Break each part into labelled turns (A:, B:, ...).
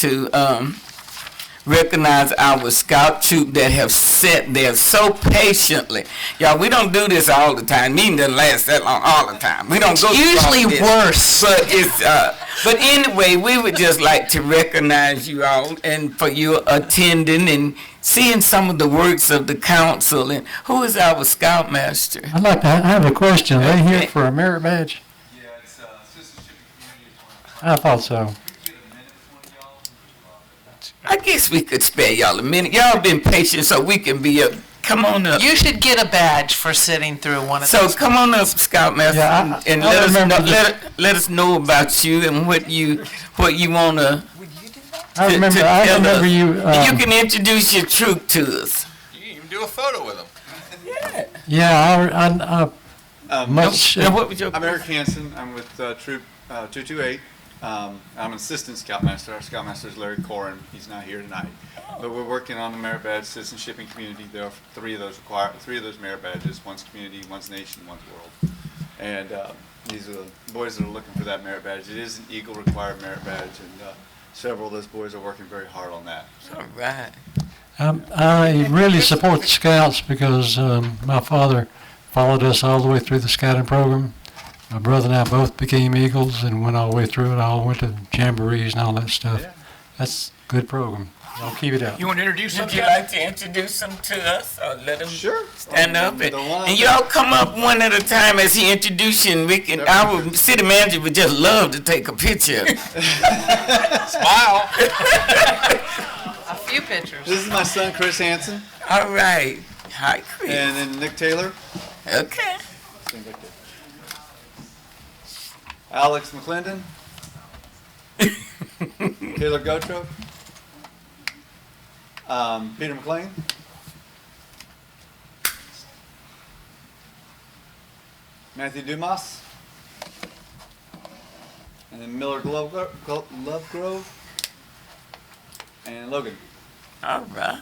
A: to um, recognize our scout troop that have sat there so patiently. Y'all, we don't do this all the time. Meeting doesn't last that long all the time. We don't go through all
B: Usually
A: this.
B: worse.
A: But it's uh, but anyway, we would just like to recognize you all and for your attending and seeing some of the works of the council and who is our scoutmaster.
C: I'd like to, I have a question. Are they
A: Okay.
C: here for a merit badge?
D: Yeah, it's uh, Assistant Shipping Community is one.
C: I thought so.
D: If you get a minute with one of y'all,
A: I guess we could spare y'all a minute. Y'all been patient so we can be up. Come on up.
B: You should get a badge for sitting through one of
A: So
B: those.
A: come on up, Scoutmaster,
C: Yeah, I-
A: and- and
C: I
A: let us know,
C: remember this.
A: let, let us know about you and what you what you wanna.
C: I
A: to-
C: remember,
A: to
C: I
A: tell
C: remember
A: us.
C: you,
A: you
C: um,
A: can introduce your troop to us.
D: you can even do a photo with them.
C: yeah, I, I, I,
D: Um,
C: much,
A: Now, what was your-
D: I'm Eric Hansen. I'm with uh, Troop uh, 228. Um, I'm an assistant scoutmaster. Our scoutmaster is Larry Corin. He's not here tonight, but we're working on the merit badge citizenship and community. There are three of those require three of those merit badges. One's community, one's nation, one's world. And uh, these are the boys that are looking for that merit badge. It is an Eagle required merit badge, and uh, several of those boys are working very hard on that.
A: All right.
C: um, I really support the scouts because, um, my father followed us all the way through the scouting program. My brother and I both became Eagles and went all the way through it, all went to jamborees and all that stuff.
D: Yeah.
C: That's a good program. I'll keep it up.
E: You want to introduce
A: Would
E: something?
A: you like to introduce them to us or let them
D: Sure.
A: stand up? And,
D: uh, The one-
A: and y'all come up one at a time as he introduces you and we can, our city manager would just love to take a picture.
D: Smile.
B: A few pictures.
D: This is my son Chris Hansen,
A: All right. Hi, Chris.
D: and then Nick Taylor.
A: Okay.
D: Stand right there. Alex McClendon. Taylor Gotro. Um, Peter McLean. Matthew Dumas. And then Miller Glover, Glo- Lovegrove. And Logan.
A: All right.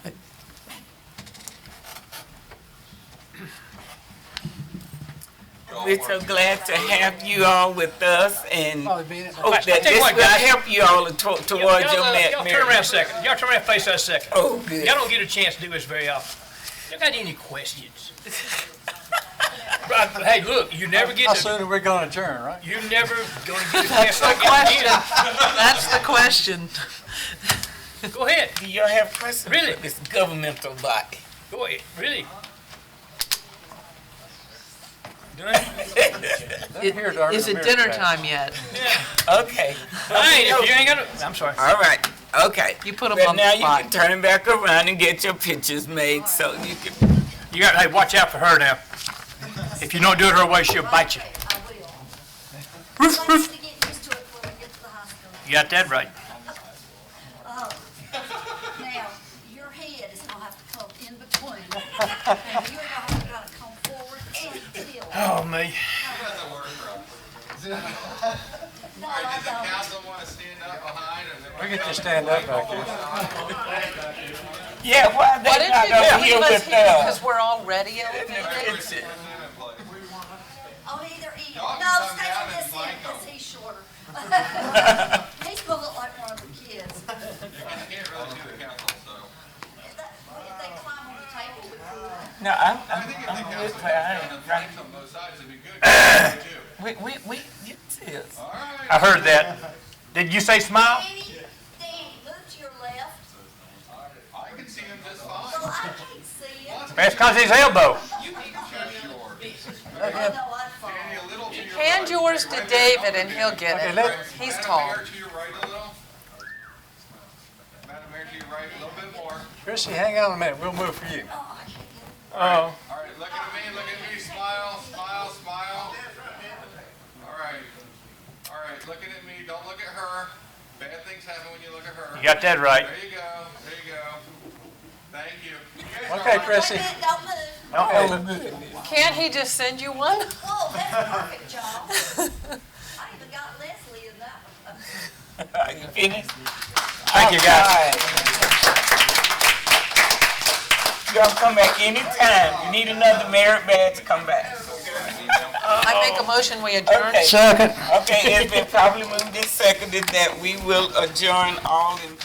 A: We're so glad to have you all with us and
B: Oh,
A: hope that
E: I tell
A: this
E: you what,
A: will
E: guys.
A: help you all to- towards your
E: Y'all, uh,
A: ma-
E: y'all turn around a
A: marriage.
E: second. Y'all turn around and face us a second.
A: Oh, good.
E: Y'all don't get a chance to do this very often. Y'all got any questions? Right, but hey, look, you never get to,
C: are we gonna adjourn, right?
E: you never gonna get a chance like that
B: Question.
E: again.
B: That's the question.
E: Go ahead,
A: Do y'all have questions?
E: Really?
A: This governmental body.
E: go ahead, really.
B: Is it dinner time yet?
A: Okay.
E: Hey, if you ain't gonna, I'm sorry.
A: All right. Okay.
B: You put 'em
A: But
B: on the
A: Now you
B: spot.
A: can turn back around and get your pictures made so you can
E: You got, hey, watch out for her now. If you don't do it her way, she'll bite you.
F: I will. Roof, roof. to get used to it before we get to the hospital.
E: You got that right.
F: Now, your head is gonna have to come in between. And you're gonna have to come forward and still.
E: Oh, me.
F: No, I don't.
C: We get to stand up back there.
A: Yeah, why
B: Why
A: they
B: didn't
A: not
B: you
A: up
B: just
A: here
B: leave us
A: with uh,
B: here
A: us?
B: because we're already elevated?
F: On either end. No, stay on this end, cause he's shorter. He's gonna look like one of the kids. If they climb on the table, we could.
A: No, I'm, I'm, I'm with her. I ain't right. We, we, we, you too.
E: I heard that. Did you say smile?
F: Danny, Danny, move to your left.
D: I can see him just fine.
F: Well, I can't see it.
E: That's cause his elbow.
F: I know I'd fall.
B: Hand yours to David and he'll get it. He's tall.
D: to your right a little. Madam Mayor, to your right a little bit more.
C: Chrissy, hang on a minute, we'll move for you.
F: Oh, I can't get it.
E: Oh.
D: All right, look at me, look at me, smile, smile, smile. All right, all right, looking at me, don't look at her. Bad things happen when you look at her.
E: You got that right.
D: There you go, there you go. Thank you. You guys are
C: Okay,
D: right.
C: Chrissy.
F: Wait a minute, Don't move.
B: Can't he just send you one?
F: Whoa, that's perfect, John. I even got Leslie in that one.
A: Are you finished?
E: Thank you, guys.
A: Y'all come back anytime. You need another merit badge, come back.
B: I make a motion, we adjourn.
A: Okay.
C: Second.
A: Okay, it's been probably moved and seconded that we will adjourn all in